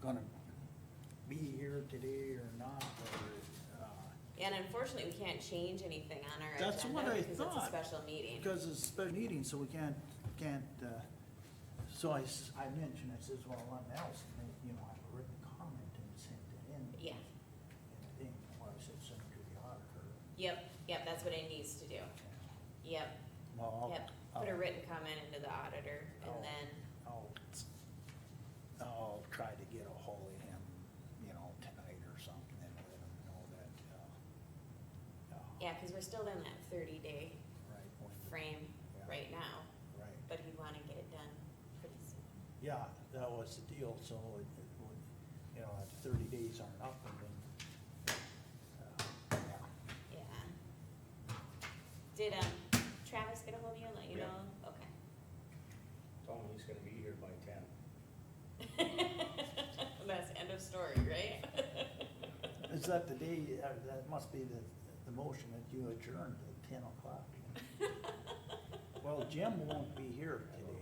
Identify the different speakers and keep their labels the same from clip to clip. Speaker 1: gonna be here today or not, or, uh,
Speaker 2: And unfortunately, we can't change anything on our
Speaker 1: That's what
Speaker 2: agenda
Speaker 1: I
Speaker 2: because it's a
Speaker 1: thought.
Speaker 2: special meeting.
Speaker 1: because it's a special meeting, so we can't, can't, uh, so I, s- I mentioned, I says, well, what else, and they, you know, I have written comment and sent it in.
Speaker 2: Yeah,
Speaker 1: And I think, well, I said, send it to the auditor.
Speaker 2: yep, yep, that's what it needs to do. Yep,
Speaker 1: Well,
Speaker 2: yep.
Speaker 1: I'll,
Speaker 2: Put a written comment into the auditor
Speaker 1: Oh.
Speaker 2: and then,
Speaker 1: I'll, I'll try to get a hold of him, you know, tonight or something, and let him know that, uh, uh,
Speaker 2: yeah, because we're still in that thirty day
Speaker 1: Right. when the-
Speaker 2: frame
Speaker 1: yeah,
Speaker 2: right now,
Speaker 1: Right.
Speaker 2: but we want to get it done pretty soon.
Speaker 1: Yeah, that was the deal, so it, it would, you know, if thirty days aren't up, and then, uh, yeah.
Speaker 2: Yeah. Did, um, Travis get a hold of you and let you
Speaker 3: Yeah.
Speaker 2: know?
Speaker 3: Tell him he's gonna be here by ten.
Speaker 2: Okay. That's end of story, right?
Speaker 1: Is that the day, uh, that must be the, the motion that you adjourned at ten o'clock? Well, Jim won't be here today.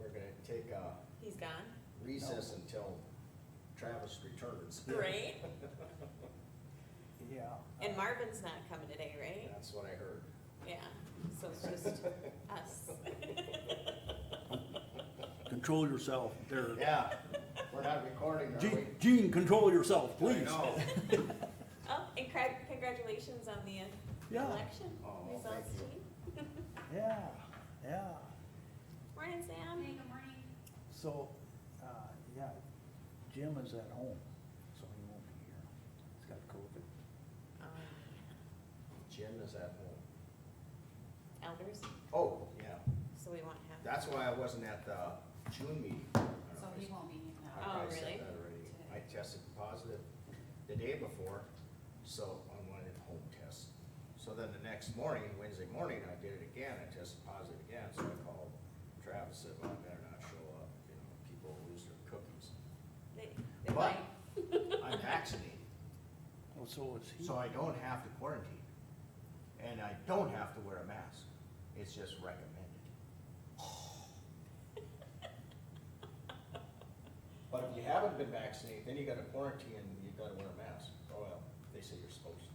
Speaker 3: We're gonna take a
Speaker 2: He's gone,
Speaker 3: recess until Travis returns.
Speaker 2: right?
Speaker 1: Yeah.
Speaker 2: And Marvin's not coming today, right?
Speaker 3: That's what I heard.
Speaker 2: Yeah, so it's just us.
Speaker 1: Control yourself there.
Speaker 3: Yeah, we're not recording, are we?
Speaker 1: Gene, Gene, control yourself, please.
Speaker 3: No.
Speaker 2: Oh, and cra- congratulations on the uh,
Speaker 1: Yeah.
Speaker 2: election
Speaker 3: Oh, thank
Speaker 2: results,
Speaker 3: you.
Speaker 2: Gene.
Speaker 1: Yeah, yeah,
Speaker 2: Morning, Sam.
Speaker 4: Good morning.
Speaker 1: so, uh, yeah, Jim is at home, so he won't be here. He's got COVID.
Speaker 2: Um,
Speaker 3: Jim is at home.
Speaker 2: Elders,
Speaker 3: Oh, yeah,
Speaker 2: so we won't have.
Speaker 3: that's why I wasn't at the June meeting. I don't
Speaker 4: So
Speaker 3: know
Speaker 4: he
Speaker 3: if I-
Speaker 4: won't be here
Speaker 3: I
Speaker 4: now.
Speaker 2: Oh,
Speaker 3: probably said
Speaker 2: really?
Speaker 3: that already. I tested positive the day before, so on one of the home tests. So then the next morning, Wednesday morning, I did it again, I tested positive again, so I called Travis, said, well, I better not show up, you know, people lose their cookies.
Speaker 2: They, they
Speaker 3: But-
Speaker 2: might.
Speaker 3: I'm vaccinated,
Speaker 1: Well, Oh, so is he.
Speaker 3: so I don't have to quarantine, and I don't have to wear a mask, it's just recommended. But if you haven't been vaccinated, then you gotta quarantine and you gotta wear a mask, oh well, they say you're supposed to.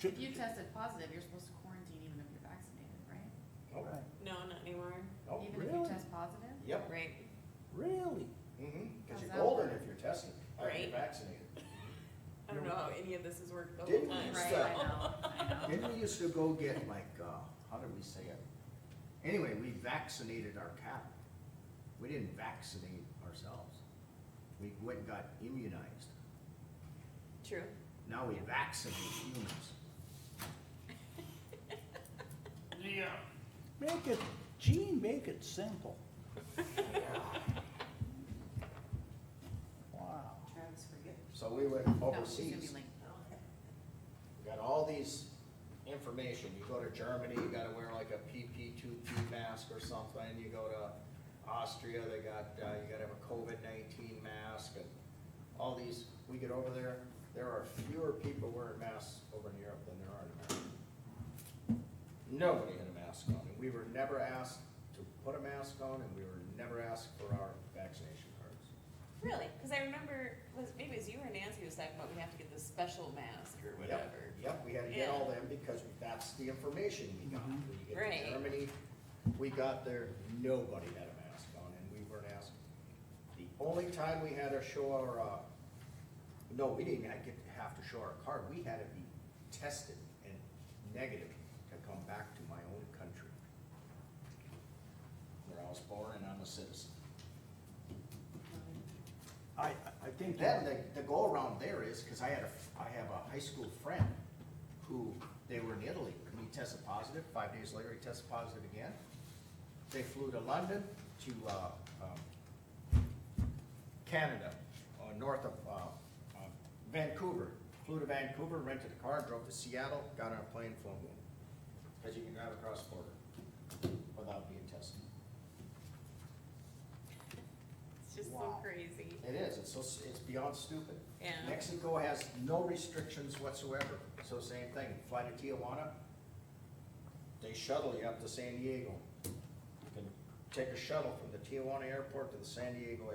Speaker 1: Should-
Speaker 4: If you tested positive, you're supposed to quarantine even if you're vaccinated, right?
Speaker 3: Nope,
Speaker 1: Right.
Speaker 2: No, not anymore.
Speaker 3: nope,
Speaker 4: Even if you
Speaker 1: really?
Speaker 4: test positive?
Speaker 3: Oh, yep,
Speaker 2: Right.
Speaker 1: Really?
Speaker 3: mm-hmm, cause
Speaker 4: How's
Speaker 3: you're
Speaker 4: that
Speaker 3: golden
Speaker 4: work?
Speaker 3: if you're tested, or if you're
Speaker 2: Right.
Speaker 3: vaccinated.
Speaker 2: I don't know how any of this has worked the whole
Speaker 3: Didn't
Speaker 2: time.
Speaker 3: you
Speaker 4: Right,
Speaker 3: So-
Speaker 4: I know, I know.
Speaker 3: Didn't we used to go get like, uh, how did we say it? Anyway, we vaccinated our cattle. We didn't vaccinate ourselves. We went and got immunized.
Speaker 2: True.
Speaker 3: Now we vaccinate humans.
Speaker 1: Make it, Gene, make it simple. Wow.
Speaker 4: Travis, forget.
Speaker 3: So we went
Speaker 4: No, he's gonna be
Speaker 3: overseas,
Speaker 4: like,
Speaker 3: We got all these information. You go to Germany, you gotta wear like a PP two P mask or something. You go to Austria, they got, uh, you gotta have a COVID nineteen mask and all these. We get over there, there are fewer people wearing masks over in Europe than there are in America. Nobody had a mask on, and we were never asked to put a mask on, and we were never asked for our vaccination cards.
Speaker 2: Really? Because I remember, was, maybe it was you or Nancy was talking about we have to get this special mask or whatever.
Speaker 3: Yep, Yep, we had to get all them because that's the information we got. When you get
Speaker 2: Right.
Speaker 3: to Germany, we got there, nobody had a mask on and we weren't asked. The only time we had to show our, uh, no, we didn't have get- have to show our card, we had to be tested and negative to come back to my own country. Where I was born and I'm a citizen.
Speaker 1: I, I- I think.
Speaker 3: Then the, the go around there is, cause I had a, I have a high school friend who, they were in Italy, and he tested positive, five days later he tested positive again. They flew to London, to, uh, um, Canada, uh, north of, uh, uh, Vancouver. Flew to Vancouver, rented a car, drove to Seattle, got on a plane, flew home. Cause you can drive across the border without being tested.
Speaker 2: It's just so
Speaker 3: Wow.
Speaker 2: crazy.
Speaker 3: It is, it's so, it's beyond stupid.
Speaker 2: Yeah.
Speaker 3: Mexico has no restrictions whatsoever, so same thing, fly to Tijuana, they shuttle you up to San Diego. You can take a shuttle from the Tijuana airport to the San Diego